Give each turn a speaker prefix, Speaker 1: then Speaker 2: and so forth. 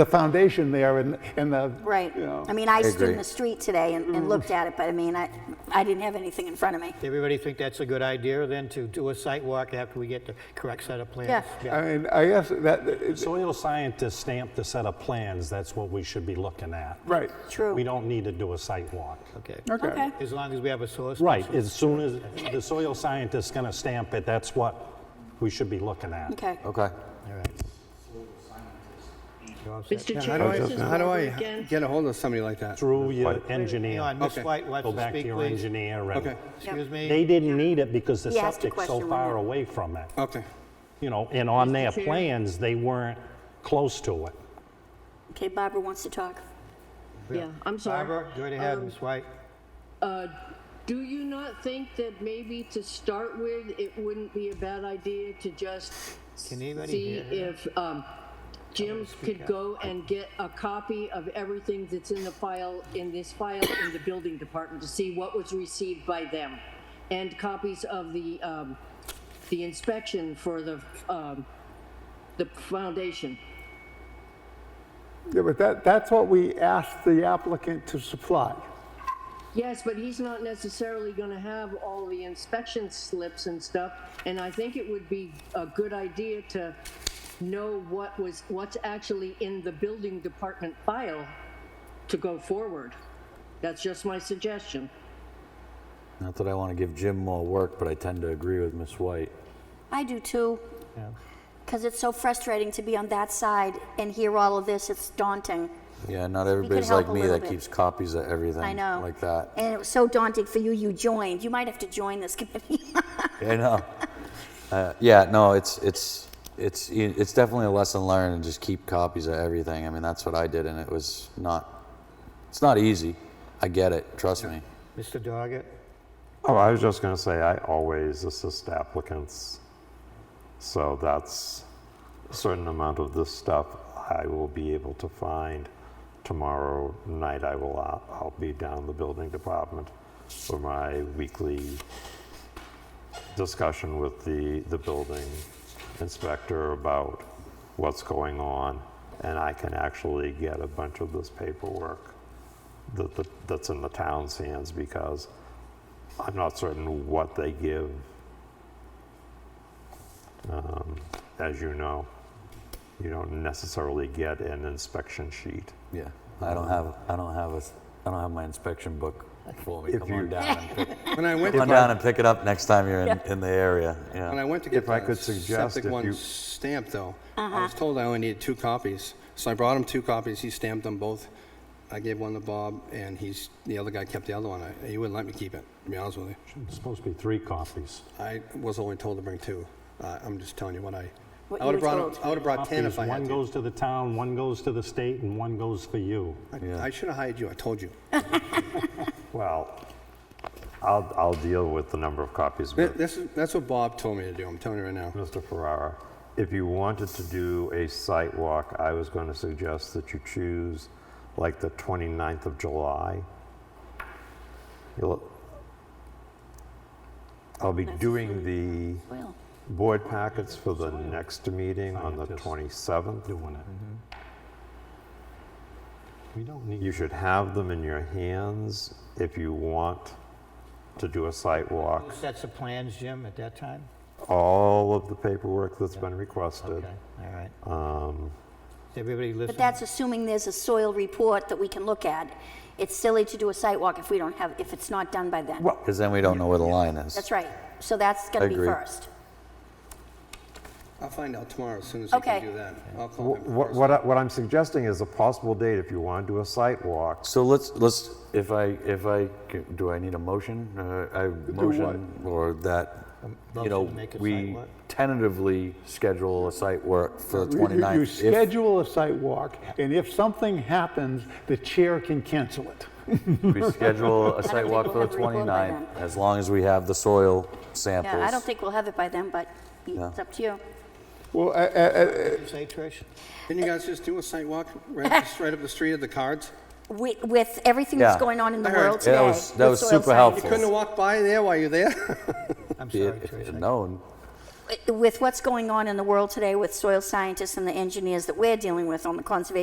Speaker 1: the foundation there and, and the,
Speaker 2: Right.
Speaker 1: you know.
Speaker 2: I mean, I stood
Speaker 3: agree.
Speaker 2: in the street today and, and looked at it, but I mean, I, I didn't have anything in front of me.
Speaker 4: Everybody think that's a good idea then to do a site walk after we get the correct set of plans?
Speaker 2: Yeah.
Speaker 1: I mean, I guess that, it's,
Speaker 5: Soil scientists stamp the set of plans, that's what we should be looking at.
Speaker 1: right,
Speaker 2: True.
Speaker 5: We don't need to do a site walk.
Speaker 4: Okay.
Speaker 1: okay.
Speaker 2: Okay.
Speaker 4: As long as we have a source.
Speaker 5: Right, as soon as the soil scientist's gonna stamp it, that's what we should be looking at.
Speaker 2: Okay.
Speaker 3: Okay.
Speaker 4: All right. You're all set.
Speaker 6: Mr.
Speaker 7: How do
Speaker 6: Chairman, this
Speaker 7: I,
Speaker 6: is
Speaker 7: how do
Speaker 6: Barbara
Speaker 7: I
Speaker 6: again.
Speaker 7: get a hold of somebody like that?
Speaker 5: Through your engineer.
Speaker 4: Hang on, Ms.
Speaker 7: Okay.
Speaker 4: White wants
Speaker 5: Go
Speaker 4: to
Speaker 5: back to
Speaker 4: speak,
Speaker 5: your
Speaker 4: please.
Speaker 5: engineer and
Speaker 7: Okay,
Speaker 4: Excuse
Speaker 5: they
Speaker 4: me?
Speaker 5: didn't need it because the
Speaker 2: He asked a
Speaker 5: septic's so
Speaker 2: question,
Speaker 5: far
Speaker 2: wasn't he?
Speaker 5: away from it.
Speaker 7: okay.
Speaker 5: You know, and on their
Speaker 6: Chair.
Speaker 5: plans, they weren't close to it.
Speaker 2: Okay, Barbara wants to talk.
Speaker 6: Yeah, I'm sorry.
Speaker 4: Barbara, go right ahead,
Speaker 6: Um,
Speaker 4: Ms. White.
Speaker 6: Uh, Do you not think that maybe to start with, it wouldn't be a bad idea to just
Speaker 4: Can anybody
Speaker 6: see
Speaker 4: hear her?
Speaker 6: if um, Jim could go and get a copy of everything that's in the file, in this file in the building department to see what was received by them? And copies of the, um, the inspection for the, um, the foundation?
Speaker 1: Yeah, but that, that's what we asked the applicant to supply.
Speaker 6: Yes, but he's not necessarily going to have all the inspection slips and stuff, and I think it would be a good idea to know what was, what's actually in the building department file to go forward. That's just my suggestion.
Speaker 3: Not that I want to give Jim more work, but I tend to agree with Miss White.
Speaker 2: I do too. Because it's so frustrating to be on that side and hear all of this. It's daunting.
Speaker 3: Yeah, not everybody's
Speaker 2: help
Speaker 3: like
Speaker 2: a
Speaker 3: me
Speaker 2: little
Speaker 3: that
Speaker 2: bit.
Speaker 3: keeps copies of everything.
Speaker 2: I know.
Speaker 3: Like that.
Speaker 2: And it was so daunting for you. You joined. You might have to join this committee.
Speaker 3: I know. Uh, yeah, no, it's it's it's it's definitely a lesson learned and just keep copies of everything. I mean, that's what I did, and it was not. It's not easy. I get it. Trust me.
Speaker 4: Mr. Doggett?
Speaker 8: Oh, I was just going to say, I always assist applicants. So that's a certain amount of this stuff I will be able to find. Tomorrow night, I will, uh, I'll be down the building department for my weekly discussion with the, the building inspector about what's going on. And I can actually get a bunch of this paperwork that, that- that's in the town's hands because I'm not certain what they give, um, as you know. You don't necessarily get an inspection sheet.
Speaker 3: Yeah. I don't have I don't have a I don't have my inspection book for me.
Speaker 8: If
Speaker 3: Come
Speaker 8: you-
Speaker 3: on down. And pick,
Speaker 7: When I went
Speaker 3: come
Speaker 7: to
Speaker 3: on down
Speaker 7: buy,
Speaker 3: and pick it up next time you're in, in the area.
Speaker 7: when
Speaker 3: Yeah.
Speaker 7: I went to
Speaker 8: If
Speaker 7: get
Speaker 8: I
Speaker 7: the
Speaker 8: could suggest
Speaker 7: septic
Speaker 8: if
Speaker 7: one
Speaker 8: you-
Speaker 7: stamped though, I
Speaker 6: Uh-huh.
Speaker 7: was told I only needed two copies. So I brought him two copies, he stamped them both. I gave one to Bob and he's, the other guy kept the other one. I- He wouldn't let me keep it, to be honest with you.
Speaker 5: It's supposed to be three copies.
Speaker 7: I was only told to bring two. Uh, I'm just telling you what I,
Speaker 2: What
Speaker 7: I
Speaker 2: you
Speaker 7: would have
Speaker 2: were
Speaker 7: brought,
Speaker 2: told.
Speaker 7: I would have brought 10
Speaker 5: Copies,
Speaker 7: if I
Speaker 5: one
Speaker 7: had to.
Speaker 5: goes to the town, one goes to the state, and one goes for you.
Speaker 7: I- I should have hired you, I told you.
Speaker 8: Well, I'll, I'll deal with the number of copies
Speaker 7: Th-
Speaker 8: with
Speaker 7: This is, that's what Bob told me to do, I'm telling you right now.
Speaker 8: Mr. Ferrara. If you wanted to do a site walk, I was going to suggest that you choose like the 29th of July. You'll- I'll be doing the
Speaker 2: well,
Speaker 8: board packets for the next meeting on the
Speaker 5: Scientists.
Speaker 8: 27th.
Speaker 5: Doing it. We don't need.
Speaker 8: You should have them in your hands if you want to do a site walk.
Speaker 4: Sets of plans, Jim, at that time?
Speaker 8: All of the paperwork that's been requested.
Speaker 4: Okay, all right.
Speaker 8: Um,
Speaker 4: Is Everybody
Speaker 2: but
Speaker 4: listen?
Speaker 2: that's assuming there's a soil report that we can look at. It's silly to do a site walk if we don't have, if it's not done by then.
Speaker 3: Because then we don't know where the line is.
Speaker 2: That's right. So that's going to be
Speaker 3: Agreed.
Speaker 2: first.
Speaker 7: I'll find out tomorrow as soon as I can
Speaker 2: Okay.
Speaker 7: do that. I'll call
Speaker 8: wh-
Speaker 7: him.
Speaker 8: What, what I- what I'm suggesting is a possible date if you want to do a site walk.
Speaker 3: So let's, let's, if I, if I, c- do I need a motion? Uh, I motion or that, you
Speaker 4: motion
Speaker 3: know,
Speaker 4: to make a site
Speaker 3: we
Speaker 4: work?
Speaker 3: tentatively schedule a site work for the
Speaker 1: You- you- You
Speaker 3: 29th. If
Speaker 1: schedule a site walk, and if something happens, the chair can cancel it.
Speaker 3: we schedule a site
Speaker 2: think
Speaker 3: walk
Speaker 2: we'll
Speaker 3: for
Speaker 2: have
Speaker 3: the
Speaker 2: a report by
Speaker 3: 29th, as long as we have the soil samples.
Speaker 2: Yeah, I don't think we'll have it by then, but it's up to you.
Speaker 1: Well, I- I- I-
Speaker 4: Did you say, Trish?
Speaker 7: Can you guys just do a site walk right, just right up the street of the cards?
Speaker 2: With, with everything that's
Speaker 3: Yeah.
Speaker 2: going on in the
Speaker 7: I heard.
Speaker 2: world
Speaker 3: Yeah,
Speaker 2: today.
Speaker 3: that was- that
Speaker 2: with
Speaker 3: was
Speaker 2: soil
Speaker 3: super
Speaker 2: science-
Speaker 3: helpful.
Speaker 7: Couldn't have walked by there while you're there?
Speaker 4: I'm sorry,
Speaker 3: If
Speaker 4: Trish.
Speaker 3: it
Speaker 4: I-
Speaker 3: had known,
Speaker 2: With what's going on in the world today with soil scientists and the engineers that we're dealing with on the conservation